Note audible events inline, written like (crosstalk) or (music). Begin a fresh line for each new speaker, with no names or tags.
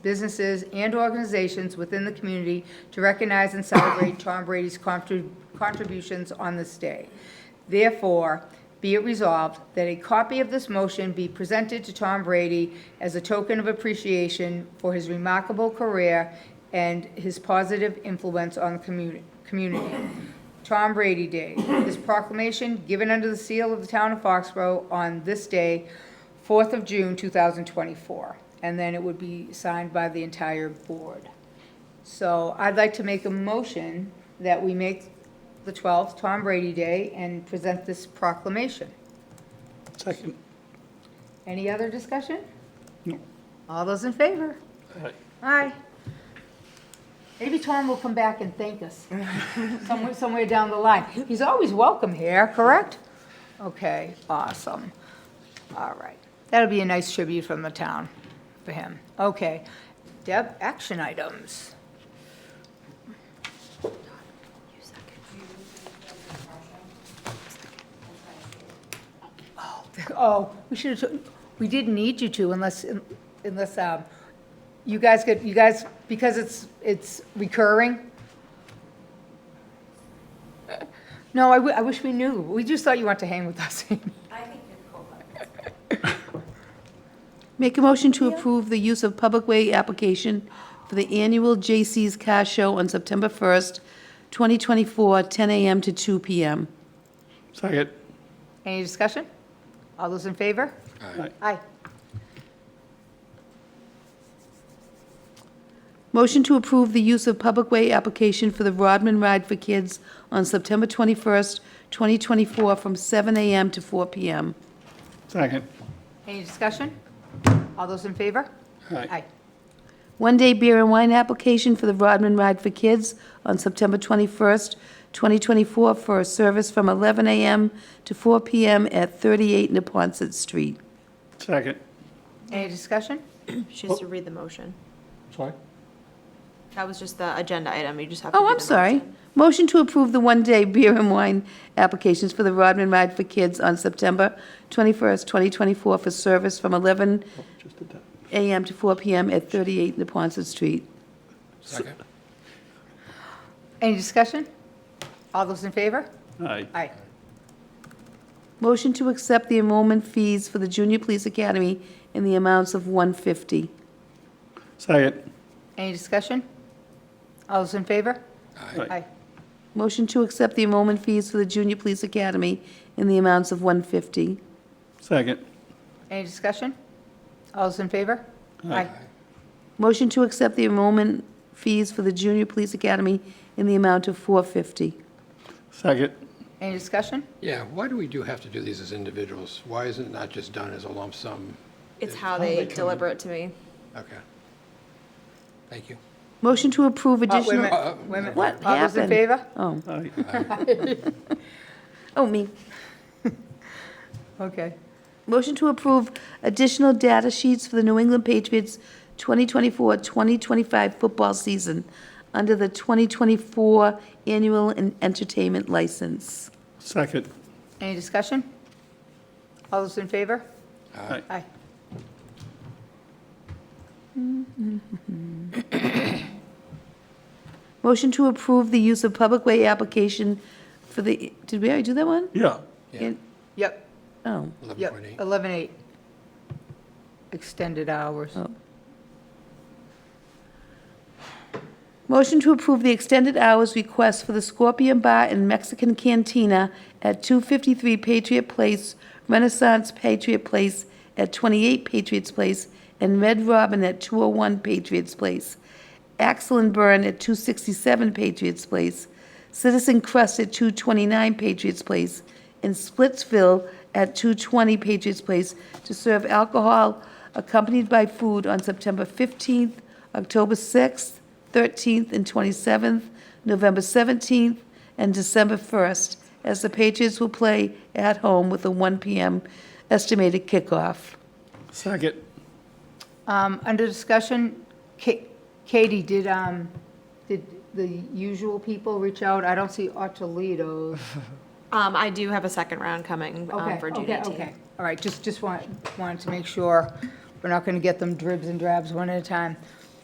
businesses, and organizations within the community to recognize and celebrate Tom Brady's contri- contributions on this day. Therefore, be it resolved that a copy of this motion be presented to Tom Brady as a token of appreciation for his remarkable career and his positive influence on the commu- community. Tom Brady Day. This proclamation given under the seal of the town of Foxborough on this day, 4th of June, 2024. And then it would be signed by the entire board. So I'd like to make a motion that we make the 12th Tom Brady Day and present this proclamation.
Second.
Any other discussion?
No.
All those in favor?
Aye.
Aye. Maybe Tom will come back and thank us somewhere, somewhere down the line. He's always welcome here, correct? Okay, awesome. All right. That'll be a nice tribute from the town for him. Okay. Deb, action items. Oh, Oh, we should have, we didn't need you to unless, unless, um, you guys could, you guys, because it's, it's recurring. No, I, wi- I wish we knew. We just thought you wanted to hang with us. (laughs)
Make a motion to approve the use of public way application for the annual J.C.'s Car Show on September 1st, 2024, 10 a.m. to 2 p.m.
Second.
Any discussion? All those in favor?
Aye.
Aye.
Motion to approve the use of public way application for the Rodman Ride for Kids on September 21st, 2024, from 7 a.m. to 4 p.m.
Second.
Any discussion? All those in favor? Aye.
One-day beer and wine application for the Rodman Ride for Kids on September 21st, 2024, for a service from 11 a.m. to 4 p.m. at 38 Neponset Street.
Second.
Any discussion?
She has to read the motion.
Sorry?
That was just the agenda item, you just have to.
Oh,
do
I'm
the
sorry.
motion.
Motion to approve the one-day beer and wine applications for the Rodman Ride for Kids on September 21st, 2024, for service from 11
Just did that.
a.m. to 4 p.m. at 38 Neponset Street.
Any discussion? All those in favor?
Aye.
Aye.
Motion to accept the enrollment fees for the Junior Police Academy in the amounts of 150.
Second.
Any discussion? All those in favor? Aye.
Motion to accept the enrollment fees for the Junior Police Academy in the amounts of 150.
Second.
Any discussion? All those in favor?
Aye.
Motion to accept the enrollment fees for the Junior Police Academy in the amount of 450.
Second.
Any discussion? Oh,
Yeah, why do we do have to do these as individuals? Why isn't it not just done as a lump sum?
It's how they deliver it to me.
Okay. Thank you.
Motion to approve
Oh, Wait a
additional. Uh,
minute, wait a minute.
What
All those in
happened?
favor?
Aye.
Oh, oh, me.
Okay.
Motion to approve additional data sheets for the New England Patriots 2024-2025 football season under the 2024 annual en- entertainment license.
Second.
Any discussion? All those in favor?
Aye.
Aye.
Motion to approve the use of public way application for the, did we already do that one?
Yeah.
Yeah,
In-
Yep,
Oh,
yep,
11.8.
eleven eight. Extended hours.
Oh. motion to approve the extended hours request for the Scorpion Bar and Mexican Cantina at 253 Patriot Place, Renaissance Patriot Place at 28 Patriots Place, and Red Robin at 201 Patriots Place, Axel and Burn at 267 Patriots Place, Citizen Crust at 229 Patriots Place, in Splitsville at 220 Patriots Place to serve alcohol accompanied by food on September 15th, October 6th, 13th, and 27th, November 17th, and December 1st, as the Patriots will play at home with a 1 p.m. estimated kickoff.
Second.
Um, under discussion, Ka- Katie, did, um, did the usual people reach out? I don't see Ottolito's.
Um, I do have a second round coming, um,
Okay,
for June
okay,
eighteenth.
okay. All right, just, just want, wanted to make sure we're not going to get them dribs and drabs one at a time.